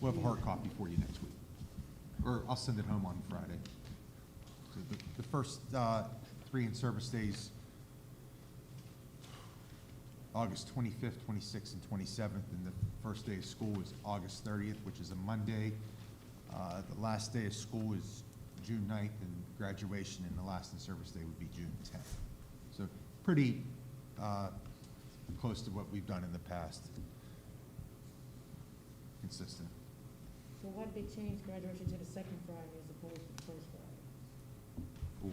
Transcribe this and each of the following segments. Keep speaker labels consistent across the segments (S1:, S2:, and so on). S1: We'll have a hard copy for you next week, or I'll send it home on Friday. So the, the first, uh, three in-service days, August twenty-fifth, twenty-sixth, and twenty-seventh, and the first day of school is August thirtieth, which is a Monday. Uh, the last day of school is June 9th, and graduation and the last in-service day would be June tenth. So pretty, uh, close to what we've done in the past. Consistent.
S2: So why did they change graduation to the second Friday as opposed to the first Friday,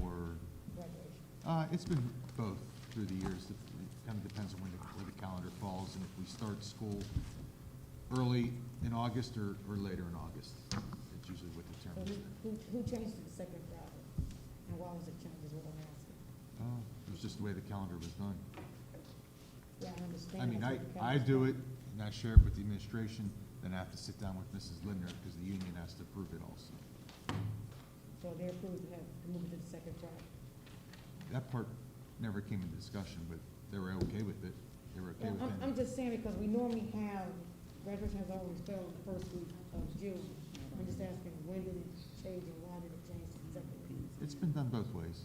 S1: Or,
S2: graduation?
S1: uh, it's been both through the years. It kind of depends on when the, where the calendar falls and if we start school early in August or, or later in August. It's usually what
S2: So who,
S1: determines it.
S2: who, who changed to the second Friday? And why was it changed is what I'm asking.
S1: Oh, It was just the way the calendar was done.
S2: Yeah, I understand.
S1: I mean,
S2: that's
S1: I,
S2: what the
S1: I
S2: council-
S1: do it and I share it with the administration, then I have to sit down with Mrs. Lindner because the union has to approve it also.
S2: So they approved to have, to move it to the second Friday.
S1: That part never came into discussion, but they were okay with it. They were okay
S2: Yeah,
S1: with
S2: I'm, I'm
S1: it.
S2: just saying because we normally have, graduation has always fell the first week of June. I'm just asking, when did it change and why did it change to the second week?
S1: It's been done both ways.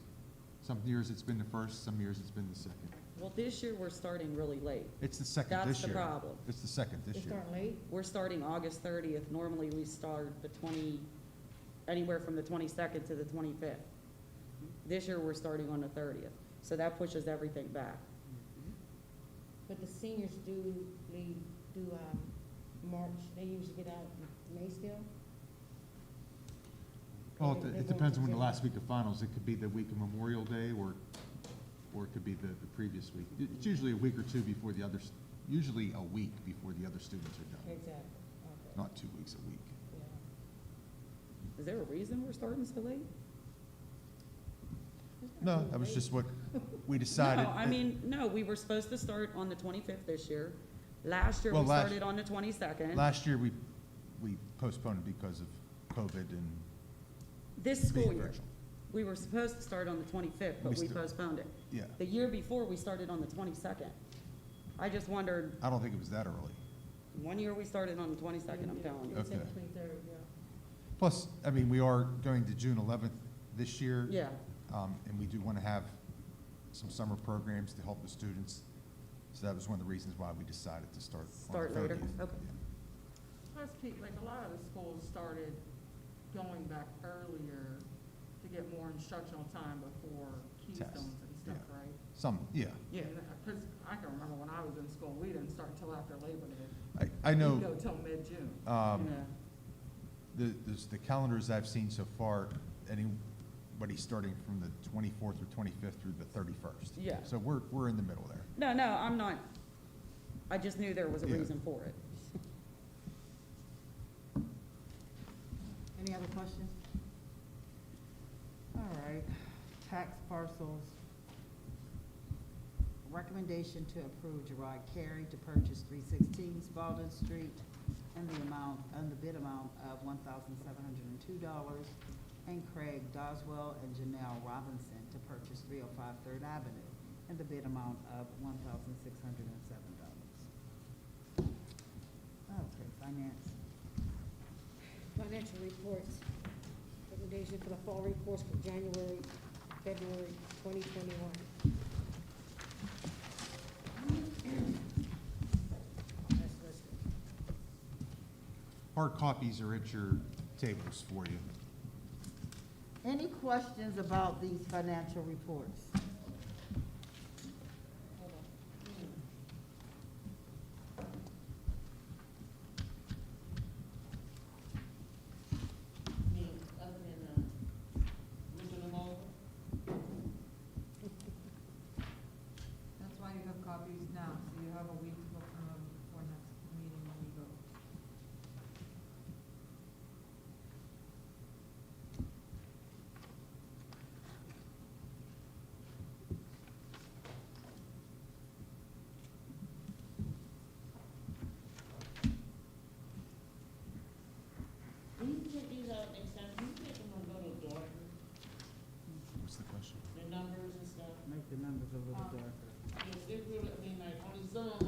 S1: Some years it's been the first, some years it's been the second.
S3: Well, this year, we're starting really late.
S1: It's the second
S3: That's
S1: this
S3: the
S1: year.
S3: problem.
S1: It's the second this
S2: It
S1: year.
S2: started late?
S3: We're starting August thirtieth. Normally, we start the twenty, anywhere from the twenty-second to the twenty-fifth. This year, we're starting on the thirtieth, so that pushes everything back.
S2: But the seniors do leave, do, um, March, they usually get out in May still?
S1: Well,
S2: They-
S1: it-
S2: they
S1: it
S2: won't
S1: depends on when the
S2: continue.
S1: last week of finals, it could be the week of Memorial Day or, or it could be the, the previous week. It- It's usually a week or two before the others, usually a week before the other students are done.
S2: Exactly, okay,
S1: Not two weeks, a week.
S2: yeah.
S3: Is there a reason we're starting so late?
S1: No, that was just what we decided.
S3: No, I mean, no, we were supposed to start on the twenty-fifth this year. Last year,
S1: Well,
S3: we
S1: last-
S3: started on the twenty-second.
S1: Last year, we, we postponed because of COVID and
S3: This school
S1: being
S3: year,
S1: virtual.
S3: we were supposed to start on the twenty-fifth,
S1: We
S3: but we
S1: st-
S3: postponed it.
S1: Yeah,
S3: The year before, we started on the twenty-second. I just wondered,
S1: I don't think it was that early.
S3: One year we started on the twenty-second, I'm telling you.
S1: Okay.
S2: Twenty-third, yeah.
S1: Plus, I mean, we are going to June eleventh this year.
S3: Yeah,
S1: Um, and we do want to have some summer programs to help the students. So that was one of the reasons why we decided to start on the
S3: Start later,
S1: thirtieth.
S3: okay.
S4: Plus, Pete, like a lot of the schools started going back earlier to get more instructional time before keystones and stuff,
S1: yeah.
S4: right?
S1: Some, yeah.
S4: Yeah. Because I can remember when I was in school, we didn't start till after Labor Day.
S1: I, I
S4: We'd
S1: know,
S4: go till mid-June.
S1: um,
S3: yeah.
S1: the, the- the calendars I've seen so far, anybody starting from the twenty-fourth or twenty-fifth through the thirty-first.
S3: Yeah.
S1: So we're, we're in the middle there.
S3: No, no, I'm not, I just knew there was a
S1: Yeah.
S3: reason for it.
S5: Any other questions? All right, tax parcels. Recommendation to approve Gerard Carey to purchase three sixteen Spalding Street and the amount, and the bid amount of one thousand seven hundred and two dollars. And Craig Doswell and Janelle Robinson to purchase 305 Third Avenue and the bid amount of one thousand six hundred and seven dollars. Okay, finance.
S2: Financial reports, recommendation for the fall reports for January, February twenty twenty-one. That's listed.
S1: Hard copies are at your tables for you.
S5: Any questions about these financial reports?
S2: Hold on.
S6: I mean, other than, uh, looking them over,
S4: That's why you have copies now, so you have a week to look them before next meeting when we go.
S6: when you put these out next time, can you make them go to Dorton,
S1: What's the question?
S6: the numbers and stuff? Um,
S5: Make the numbers a little darker.
S6: Because they really, I mean, like, on the Zoom, um,